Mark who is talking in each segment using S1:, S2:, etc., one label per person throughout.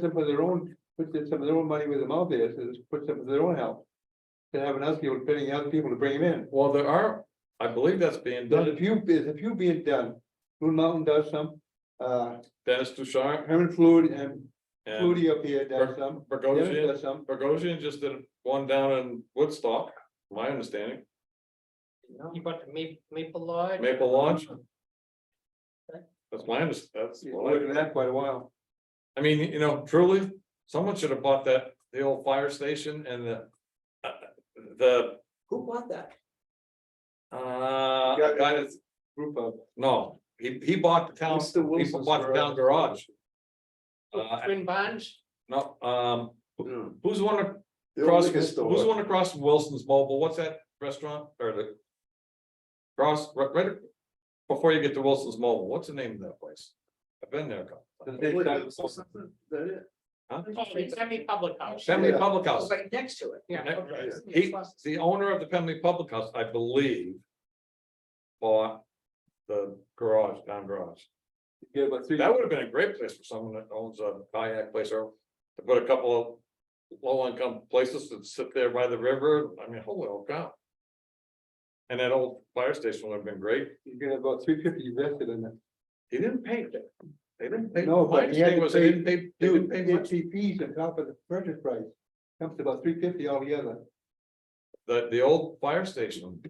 S1: some of their own, put their- some of their own money where their mouth is, and just put some of their own help. To have an outfield, paying out people to bring them in.
S2: Well, there are, I believe that's being
S1: There's
S2: done.
S1: a few, there's a few being done. Blue Mountain does some, uh,
S2: Dennis Ducharme
S1: Herman Fluid and
S2: and
S1: Flutie up here does some. Dennis
S2: Bogosian,
S1: does some.
S2: Bogosian just did one down in Woodstock, my understanding.
S3: You bought the Ma- Maple Lodge?
S2: Maple Lodge? That's my understanding. That's,
S1: He's
S2: what I-
S1: working that quite a while.
S2: I mean, you know, truly, someone should have bought that, the old fire station and the. uh, The,
S3: Who bought that?
S2: uh,
S1: Got it.
S2: guy that's,
S1: Group of,
S2: no, he, he bought the town,
S4: What's the
S2: he
S4: Wilson's
S2: bought the town garage. Uh,
S3: Twin Bonds?
S2: no, um,
S4: No.
S2: who's the one that
S4: The
S2: Across,
S4: liquor
S2: who's the
S4: store.
S2: one across from Wilson's Mobile, what's that restaurant or the? Cross, right, right before you get to Wilson's Mobile, what's the name of that place? I've been there a couple.
S1: the
S2: times.
S1: big
S4: Wait,
S1: time.
S4: so something- that it?
S3: Semi public house.
S2: Family
S4: Yeah.
S2: Public House,
S3: Right next to it. Yeah.
S2: Yeah.
S3: okay.
S2: he, the owner of the Family Public House, I believe. Bought the garage, down garage.
S1: Get about three.
S2: That would have been a great place for someone that owns a kayak place or to put a couple of low-income places that sit there by the river. I mean, holy old cow. And that old fire station would have been great.
S1: You get about three fifty invested in it.
S2: He didn't paint it. They didn't pay.
S1: No,
S2: My
S1: but he had
S2: understanding
S1: to
S2: was they didn't pay, they
S1: Dude,
S2: didn't pay
S1: get
S2: much.
S1: fees on top of the purchase price. Comes to about three fifty altogether.
S2: The, the old fire station,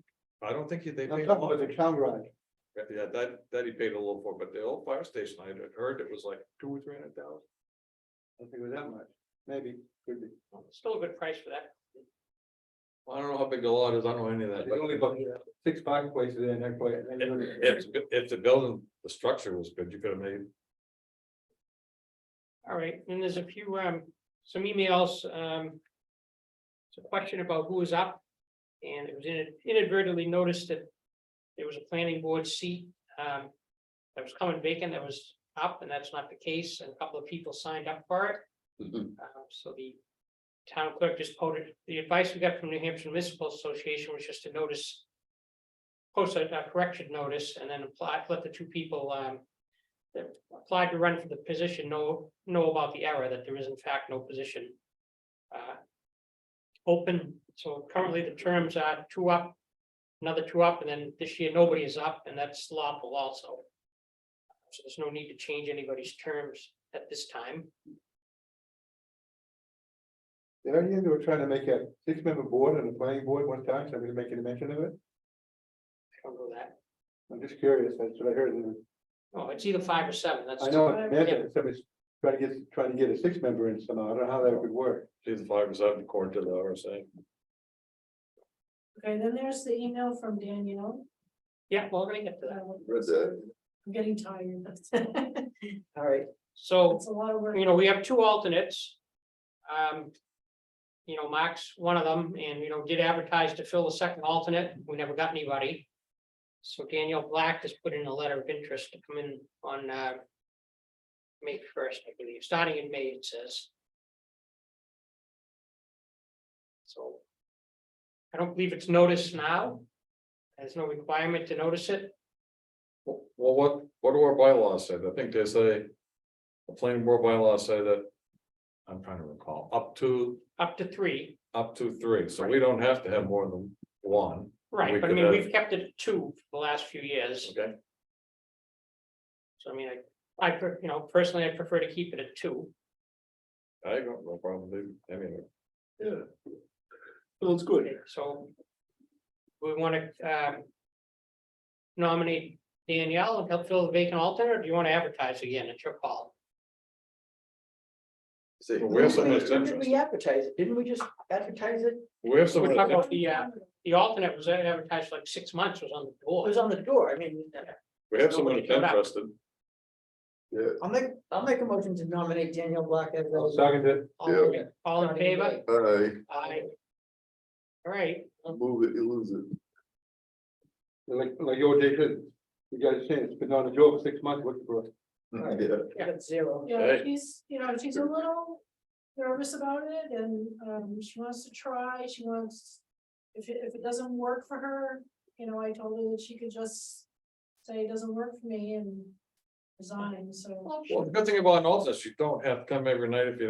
S2: I don't think he- they
S1: I'm
S2: paid. a
S1: talking
S2: lot.
S1: about the town garage.
S2: Yeah, that, that he paid a little for, but the old fire station, I had heard it was like two or three hundred thousand.
S1: I don't think it was that much, maybe, could be.
S3: Still a good price for that.
S2: I don't know how big the lot is. I don't know any of that.
S1: There's only
S2: but
S1: about six parking places in that place.
S2: If, if- if the building, the structure was good, you could have made
S3: All right, and there's a few, um, some emails, um. It's a question about who is up, and it was in- inadvertently noticed that there was a planning board seat, um. That was coming vacant, that was up, and that's not the case, and a couple of people signed up for it.
S4: Mm-hmm.
S2: Mhm.
S3: Um, so the town clerk just quoted, the advice we got from New Hampshire Municipal Association was just to notice. Post a a correction notice and then apply, let the two people, um, that applied to run for the position know, know about the error, that there is in fact no position. uh, Open, so currently the terms are two up, another two up, and then this year nobody is up, and that's lawful also. So there's no need to change anybody's terms at this time.
S1: Did I hear they were trying to make a six-member board and a planning board one time, somebody make any mention of it?
S3: I don't know that.
S1: I'm just curious, that's what I heard. and
S3: No, Oh, it's either five or seven, that's.
S1: I know,
S3: Yeah.
S1: imagine somebody's trying to get, trying to get a six-member in somehow, I don't know how that would work.
S2: either five or seven according to the RSA.
S5: Okay, then there's the email from Danielle.
S3: Yeah, well, we're gonna get to that.
S5: Um,
S4: Read that.
S5: I'm getting tired.
S2: Oh.
S3: All right. So,
S5: It's a lot of work.
S3: you know, we have two alternates. Um. You know, Mark's one of them, and you know, did advertise to fill the second alternate, we never got anybody. So Daniel Black has put in a letter of interest to come in on, uh. May first, I believe, starting in May, it says. So. I don't believe it's noticed now. There's no requirement to notice it.
S2: Well, what, what do our bylaws say? I think they say. The planning board bylaws say that. I'm trying to recall, up to,
S3: up to three,
S2: up to three, so we don't have to have more than one, We
S3: right, but I
S2: could
S3: mean,
S2: have-
S3: we've kept it at two for the last few years,
S2: okay?
S3: so I mean, I, I, per- you know, personally, I prefer to keep it at two.
S2: I don't, no problem, dude. I mean. Yeah.
S4: Sounds good.
S3: So we want to um nominate Danielle and help fill the vacant alternate, or do you want to advertise again? It's your call.
S4: See.
S2: Well, we have some that's
S6: Didn't
S2: interest.
S6: we advertise it? Didn't we just advertise it?
S2: We have some,
S3: We're talking
S2: it
S3: about the uh, the alternate was advertised like six months, was on the
S6: It
S3: board.
S6: was on the door. I mean,
S2: we have someone
S3: Nobody showed up.
S2: interested.
S6: I'll make, I'll make a motion to nominate Daniel Black as.
S1: I was talking to,
S3: All in- All in favor?
S4: I
S3: Aye. All right,
S4: move it, you lose it.
S1: like, like your day, you guys saying, it's been on the job for six months, what's the problem?
S6: Alright.
S4: Mm-hmm. Yeah.
S6: At zero.
S5: Yeah,
S2: Hey.
S5: she's, you know, she's a little nervous about it and um she wants to try, she wants. If it if it doesn't work for her, you know, I told her that she could just say it doesn't work for me and resign, so.
S2: Well, the good thing about an alternate, is you don't have to come every night if you